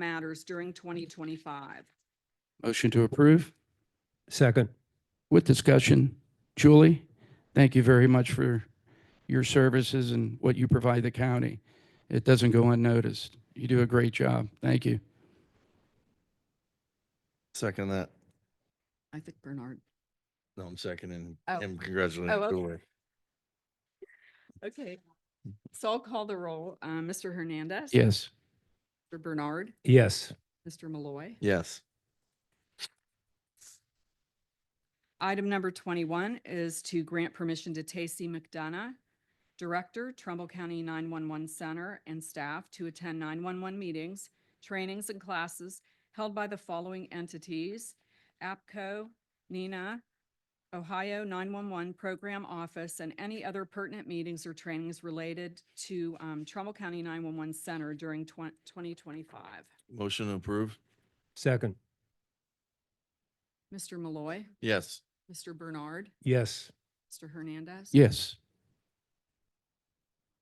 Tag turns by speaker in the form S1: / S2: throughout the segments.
S1: matters during twenty twenty-five.
S2: Motion to approve
S3: Second.
S2: with discussion. Julie, thank you very much for your services and what you provide the county. It doesn't go unnoticed. You do a great job. Thank you.
S4: Second that.
S1: I think Bernard.
S4: No, I'm seconding
S1: Oh.
S4: him.
S1: Oh, okay.
S4: Congratulations. Julie.
S1: Okay. So I'll call the roll. Uh, Mr. Hernandez.
S2: Yes.
S1: Mr. Bernard,
S3: Yes.
S1: Mr. Malloy.
S4: Yes.
S1: Item number twenty-one is to grant permission to Tacey McDonough, Director, Trumbull County nine-one-one Center, and staff to attend nine-one-one meetings, trainings, and classes held by the following entities: APCO, NINA, Ohio nine-one-one Program Office, and any other pertinent meetings or trainings related to um, Trumbull County nine-one-one Center during twenty twenty-five.
S4: Motion approved.
S3: Second.
S1: Mr. Malloy,
S4: Yes.
S1: Mr. Bernard,
S3: Yes.
S1: Mr. Hernandez.
S2: Yes.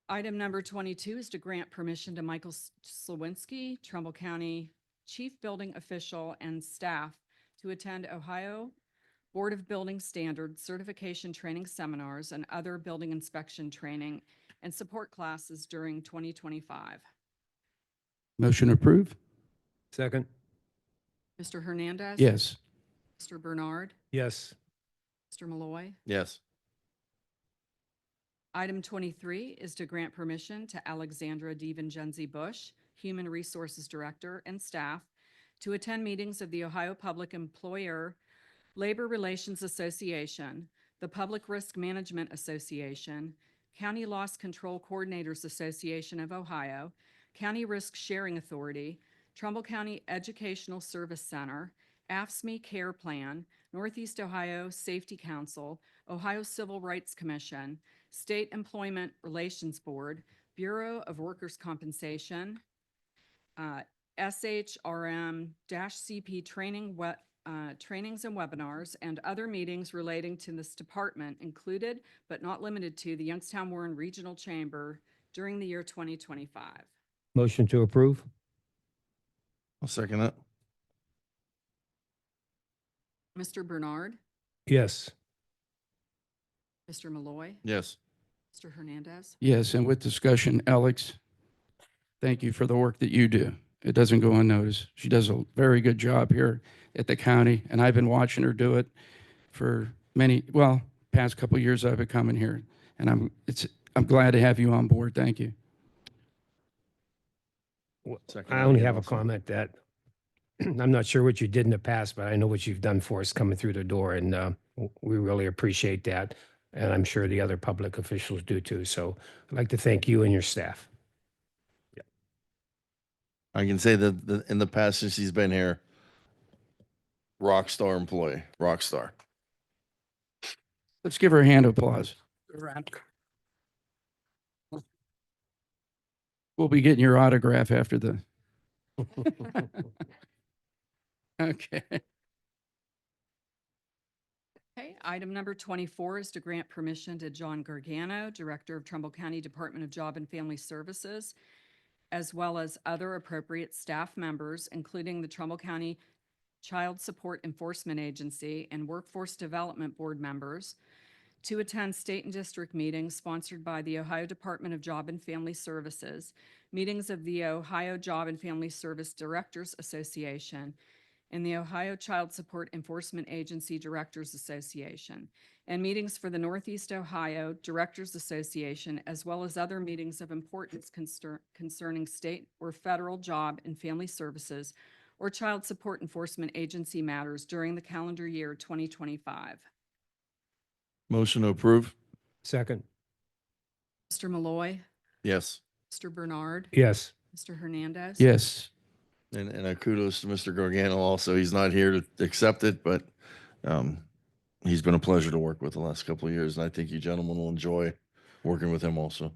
S1: Item number twenty-two is to grant permission to Michael S- Slawinski, Trumbull County Chief Building Official and staff to attend Ohio Board of Building Standards Certification Training Seminars and other building inspection training and support classes during twenty twenty-five.
S2: Motion approved?
S3: Second.
S1: Mr. Hernandez.
S2: Yes.
S1: Mr. Bernard.
S3: Yes.
S1: Mr. Malloy.
S4: Yes.
S1: Item twenty-three is to grant permission to Alexandra DiVincenzi Bush, Human Resources Director and staff, to attend meetings of the Ohio Public Employer Labor Relations Association, the Public Risk Management Association, County Loss Control Coordinators Association of Ohio, County Risk Sharing Authority, Trumbull County Educational Service Center, AFSME E Care Plan, Northeast Ohio Safety Council, Ohio Civil Rights Commission, State Employment Relations Board, Bureau of Workers' Compensation, uh, SHRM-CP training, we- uh, trainings and webinars, and other meetings relating to this department included but not limited to the Youngstown Warren Regional Chamber during the year 2025.
S3: Motion to approve?
S4: I'll second that.
S1: Mr. Bernard,
S3: Yes.
S1: Mr. Malloy,
S4: Yes.
S1: Mr. Hernandez.
S2: Yes. And with discussion, Alex, thank you for the work that you do. It doesn't go unnoticed. She does a very good job here at the county, and I've been watching her do it for many, well, past couple years I've been coming here, and I'm, it's, I'm glad to have you on board. Thank you.
S3: Well,
S4: Second
S3: I
S4: that
S3: only
S4: again
S3: have a
S4: also.
S3: comment that I'm not sure what you did in the past, but I know what you've done for us coming through the door and uh, w- we really appreciate that. And I'm sure the other public officials do too. So I'd like to thank you and your staff.
S4: I can say that the- in the past since she's been here, rock star employee, rock star.
S2: Let's give her a hand of applause. We'll be getting your autograph after the. Okay,
S1: Okay, item number twenty-four is to grant permission to John Gargano, Director of Trumbull County Department of Job and Family Services, as well as other appropriate staff members, including the Trumbull County Child Support Enforcement Agency and Workforce Development Board members, to attend state and district meetings sponsored by the Ohio Department of Job and Family Services, meetings of the Ohio Job and Family Service Directors Association, and the Ohio Child Support Enforcement Agency Directors Association, and meetings for the Northeast Ohio Directors Association, as well as other meetings of importance concer- concerning state or federal job and family services or child support enforcement agency matters during the calendar year 2025.
S4: Motion to approve.
S3: Second.
S1: Mr. Malloy,
S4: Yes.
S1: Mr. Bernard,
S3: Yes.
S1: Mr. Hernandez.
S2: yes,
S4: And, and a kudos to Mr. Gargano also. He's not here to accept it, but um, he's been a pleasure to work with the last couple of years. And I think you gentlemen will enjoy working with him also.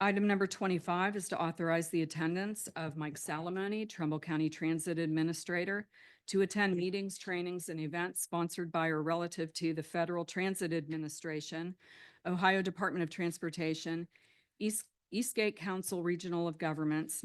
S1: Item number twenty-five is to authorize the attendance of Mike Salamone, Trumbull County Transit Administrator, to attend meetings, trainings, and events sponsored by or relative to the Federal Transit Administration, Ohio Department of Transportation, East, Eastgate Council Regional of Governments,